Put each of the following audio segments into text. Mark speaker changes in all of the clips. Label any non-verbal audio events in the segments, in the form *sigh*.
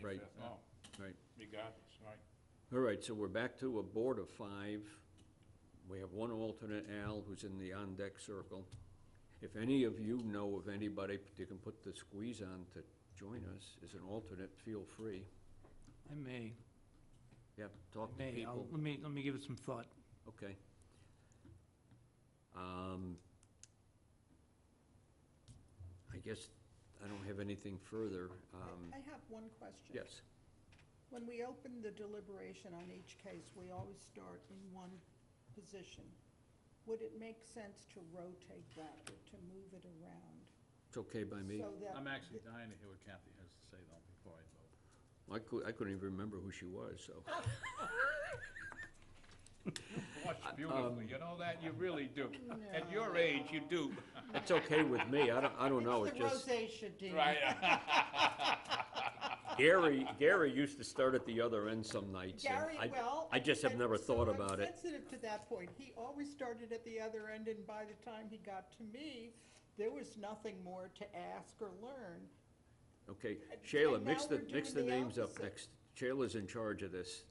Speaker 1: right?
Speaker 2: Oh, regardless, right?
Speaker 1: All right, so we're back to a board of five. We have one alternate, Al, who's in the on-deck circle. If any of you know of anybody that can put the squeeze on to join us as an alternate, feel free.
Speaker 3: I may,
Speaker 1: Yeah,
Speaker 3: I
Speaker 1: talk to
Speaker 3: may, I'll-
Speaker 1: people.
Speaker 3: let me, let me give it some thought.
Speaker 1: Okay. Um, I guess I don't have anything further. Um,
Speaker 4: I have one question.
Speaker 1: Yes,
Speaker 4: When we open the deliberation on each case, we always start in one position. Would it make sense to rotate that, or to move it around?
Speaker 1: it's okay by me.
Speaker 4: So that,
Speaker 5: I'm actually dying to hear what Kathy has to say though, before I vote.
Speaker 1: I cou- I couldn't even remember who she was, so. Uh,
Speaker 2: Blush
Speaker 1: um,
Speaker 2: beautifully, you know that? You really do. At your age, you do.
Speaker 1: It's okay with me. I don't, I don't know. It
Speaker 4: it's
Speaker 1: just,
Speaker 4: the rosacea, Dean.
Speaker 2: Right. *laughs*
Speaker 1: Gary, Gary used to start at the other end some nights. and
Speaker 4: Gary,
Speaker 1: I-
Speaker 4: well.
Speaker 1: I just have
Speaker 4: and
Speaker 1: never
Speaker 4: so
Speaker 1: thought
Speaker 4: I'm
Speaker 1: about it.
Speaker 4: sensitive to that point. He always started at the other end, and by the time he got to me, there was nothing more to ask or learn.
Speaker 1: Okay,
Speaker 4: And-
Speaker 1: Shayla,
Speaker 4: and
Speaker 1: mix
Speaker 4: now
Speaker 1: the,
Speaker 4: we're
Speaker 1: mix the
Speaker 4: doing the
Speaker 1: names up
Speaker 4: opposite.
Speaker 1: next. Shayla's in charge of this.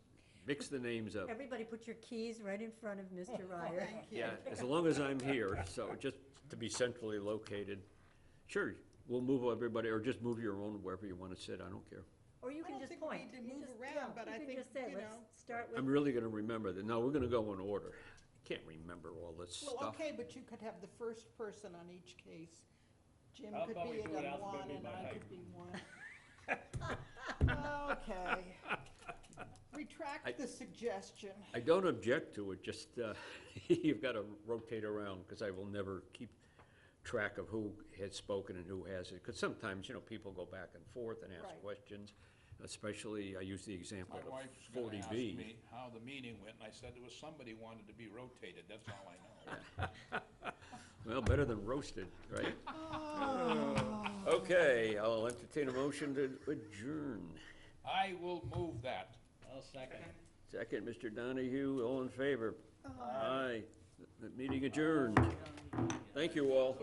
Speaker 1: Mix the names
Speaker 4: Oh.
Speaker 1: up.
Speaker 6: Everybody put your keys right in front of
Speaker 4: *laughs*
Speaker 6: Mr. Ryer.
Speaker 4: Thank you.
Speaker 1: Yeah, as long as I'm here, so just to be centrally located. Sure, we'll move everybody, or just move your own wherever you want to sit. I don't care.
Speaker 6: Or you
Speaker 4: I
Speaker 6: can
Speaker 4: don't
Speaker 6: just
Speaker 4: think we
Speaker 6: point.
Speaker 4: need to
Speaker 6: You
Speaker 4: move
Speaker 6: just-
Speaker 4: around,
Speaker 6: yeah,
Speaker 4: but I think,
Speaker 6: can just say,
Speaker 4: you
Speaker 6: let's
Speaker 4: know-
Speaker 6: start
Speaker 1: I'm
Speaker 6: with,
Speaker 1: really going to remember that. No, we're going to go in order. I can't remember all this
Speaker 4: Well,
Speaker 1: stuff.
Speaker 4: okay, but you could have the first person on each case. Jim
Speaker 5: How
Speaker 4: could
Speaker 5: about we
Speaker 4: be
Speaker 5: do it
Speaker 4: it on one,
Speaker 5: alphabetically
Speaker 4: and
Speaker 5: by
Speaker 4: I
Speaker 5: height?
Speaker 4: could be one.
Speaker 5: *laughs*
Speaker 4: Okay.
Speaker 1: I-
Speaker 4: Retract the suggestion.
Speaker 1: I don't object to it, just, uh, *laughs* you've got to rotate around, because I will never keep track of who has spoken and who hasn't, because sometimes, you know, people go back and forth and ask
Speaker 4: Right.
Speaker 1: questions, especially, I use the example
Speaker 2: My
Speaker 1: of
Speaker 2: wife's gonna
Speaker 1: forty
Speaker 2: ask
Speaker 1: B.
Speaker 2: me how the meeting went, and I said there was somebody wanted to be rotated, that's all I
Speaker 1: *laughs*
Speaker 2: know.
Speaker 1: Well, better than roasted, right? *laughs* Okay, I'll entertain a motion to adjourn.
Speaker 2: I will move that.
Speaker 5: I'll second.
Speaker 1: Second, Mr. Donahue, all in favor? Aye. The Meeting adjourned. Thank you all.